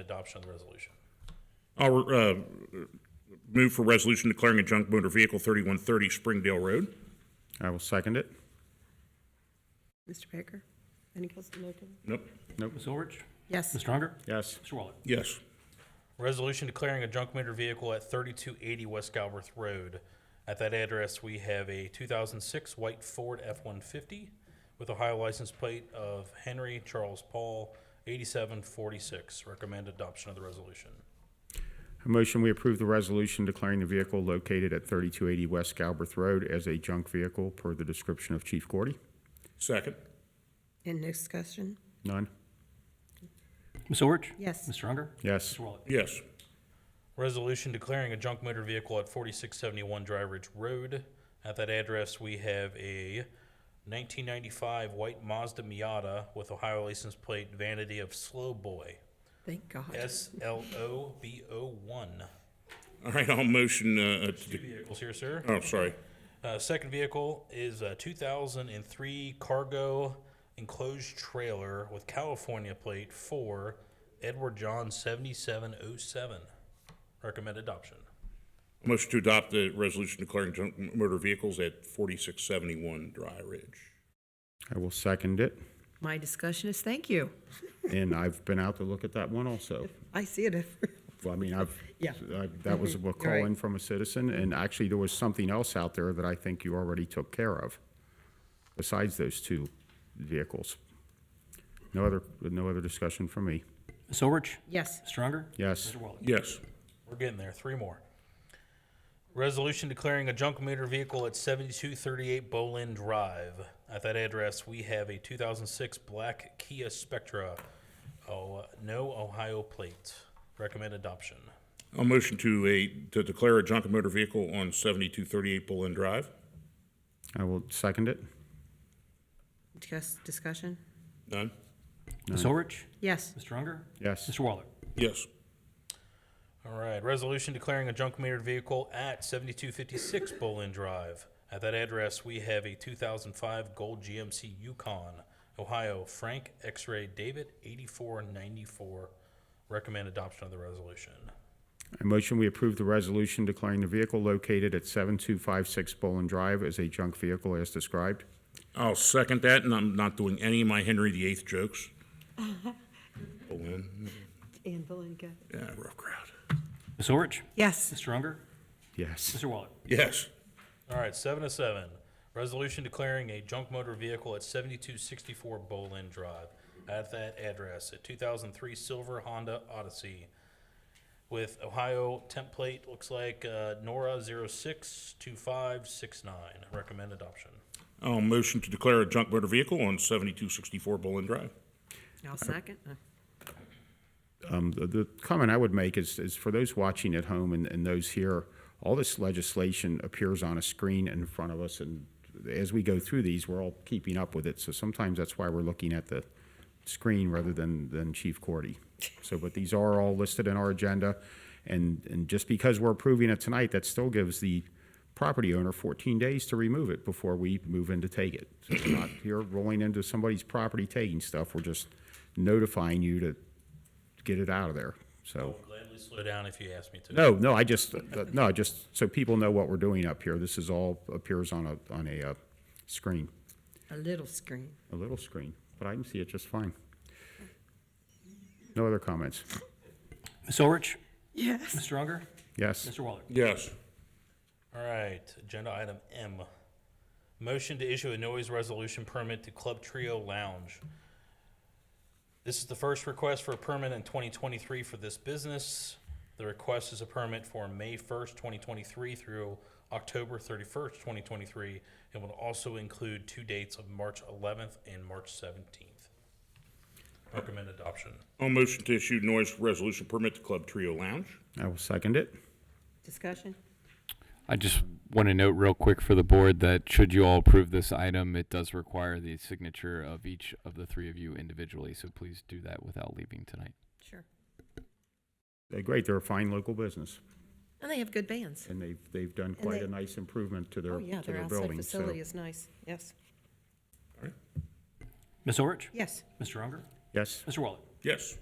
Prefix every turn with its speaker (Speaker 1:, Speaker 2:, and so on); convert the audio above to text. Speaker 1: adoption of the resolution.
Speaker 2: I'll uh, move for resolution declaring a junk motor vehicle 3130 Springdale Road.
Speaker 3: I will second it.
Speaker 4: Mr. Baker? Any question? No comment?
Speaker 2: Nope.
Speaker 5: Ms. Orich?
Speaker 4: Yes.
Speaker 5: Mr. Unger?
Speaker 3: Yes.
Speaker 5: Mr. Waller?
Speaker 2: Yes.
Speaker 1: Resolution declaring a junk motor vehicle at 3280 West Galbraith Road. At that address, we have a 2006 white Ford F-150 with Ohio license plate of Henry Charles Paul 8746. Recommend adoption of the resolution.
Speaker 3: A motion, we approve the resolution declaring the vehicle located at 3280 West Galbraith Road as a junk vehicle per the description of Chief Gordy.
Speaker 2: Second.
Speaker 4: In discussion?
Speaker 3: None?
Speaker 5: Ms. Orich?
Speaker 4: Yes.
Speaker 5: Mr. Unger?
Speaker 3: Yes.
Speaker 5: Mr. Waller?
Speaker 2: Yes.
Speaker 1: Resolution declaring a junk motor vehicle at 4671 Dry Ridge Road. At that address, we have a 1995 white Mazda Miata with Ohio license plate vanity of Slow Boy,
Speaker 4: Thank God.
Speaker 1: S-L-O-B-O-1.
Speaker 2: All right, I'll motion, uh, uh, to de-
Speaker 1: Vehicles here, sir.
Speaker 2: oh, sorry.
Speaker 1: Uh, second vehicle is a 2003 cargo enclosed trailer with California plate for Edward John 7707. Recommend adoption.
Speaker 2: Motion to adopt the resolution declaring junk m- motor vehicles at 4671 Dry Ridge.
Speaker 3: I will second it.
Speaker 4: My discussion is thank you.
Speaker 3: And I've been out to look at that one also.
Speaker 4: I see it. every-
Speaker 3: Well, I mean, I've,
Speaker 4: Yeah.
Speaker 3: I- that was a call in from a citizen, and actually, there was something else out there that I think you already took care of, besides those two vehicles. No other, no other discussion from me.
Speaker 5: Ms. Orich?
Speaker 4: Yes.
Speaker 5: Mr. Unger?
Speaker 3: Yes.
Speaker 5: Mr. Waller?
Speaker 2: Yes.
Speaker 1: We're getting there. Three more. Resolution declaring a junk motor vehicle at 7238 Bolin Drive. At that address, we have a 2006 black Kia Spectra. Oh, no Ohio plate. Recommend adoption.
Speaker 2: I'll motion to a, to declare a junk motor vehicle on 7238 Bullen Drive.
Speaker 3: I will second it.
Speaker 4: Just discussion?
Speaker 2: None?
Speaker 5: Ms. Orich?
Speaker 4: Yes.
Speaker 5: Mr. Unger?
Speaker 3: Yes.
Speaker 5: Mr. Waller?
Speaker 2: Yes.
Speaker 1: All right, resolution declaring a junk metered vehicle at 7256 Bolin Drive. At that address, we have a 2005 gold GMC Yukon, Ohio, Frank X-Ray David 8494. Recommend adoption of the resolution.
Speaker 3: I motion we approve the resolution declaring the vehicle located at 7256 Bolin Drive as a junk vehicle as described.
Speaker 2: I'll second that, and I'm not doing any of my Henry VIII jokes. Bullen,
Speaker 4: Anne Belenka.
Speaker 2: yeah, rough crowd.
Speaker 5: Ms. Orich?
Speaker 4: Yes.
Speaker 5: Mr. Unger?
Speaker 3: Yes.
Speaker 5: Mr. Waller?
Speaker 2: Yes.
Speaker 1: All right, seven to seven. Resolution declaring a junk motor vehicle at 7264 Bolin Drive. At that address, a 2003 silver Honda Odyssey with Ohio template, looks like uh, Nora 062569. Recommend adoption.
Speaker 2: I'll motion to declare a junk motor vehicle on 7264 Bullen Drive.
Speaker 4: I'll second. Uh,
Speaker 3: Um, the, the comment I would make is, is for those watching at home and, and those here, all this legislation appears on a screen in front of us, and as we go through these, we're all keeping up with it. So sometimes that's why we're looking at the screen rather than, than Chief Cordy. So, but these are all listed in our agenda, and, and just because we're approving it tonight, that still gives the property owner 14 days to remove it before we move in to take it. So we're not here rolling into somebody's property taking stuff. We're just notifying you to get it out of there. So,
Speaker 1: Gladly slow down if you ask me to.
Speaker 3: no, no, I just, no, just so people know what we're doing up here. This is all appears on a, on a uh, screen,
Speaker 4: A little screen.
Speaker 3: a little screen, but I can see it just fine. No other comments?
Speaker 5: Ms. Orich?
Speaker 4: Yes.
Speaker 5: Mr. Unger?
Speaker 3: Yes,
Speaker 5: Mr. Waller?
Speaker 2: Yes.
Speaker 1: All right, agenda item M. Motion to issue a noise resolution permit to Club Trio Lounge. This is the first request for a permit in 2023 for this business. The request is a permit for May 1st, 2023 through October 31st, 2023, and will also include two dates of March 11th and March 17th. Recommend adoption.
Speaker 2: I'll motion to issue noise resolution permit to Club Trio Lounge.
Speaker 3: I will second it.
Speaker 4: Discussion?
Speaker 6: I just want to note real quick for the board that should you all approve this item, it does require the signature of each of the three of you individually, so please do that without leaving tonight.
Speaker 4: Sure.
Speaker 3: Uh, Great, they're a fine local business,
Speaker 4: And they have good bands.
Speaker 3: and they've, they've done quite
Speaker 4: they-
Speaker 3: a nice improvement to
Speaker 4: Oh,
Speaker 3: their,
Speaker 4: yeah,
Speaker 3: to
Speaker 4: their
Speaker 3: their
Speaker 4: outside
Speaker 3: building, so.
Speaker 4: facility is nice. Yes.
Speaker 5: Ms. Orich?
Speaker 4: Yes.
Speaker 5: Mr. Unger?
Speaker 3: Yes,
Speaker 5: Mr. Waller?
Speaker 2: Yes.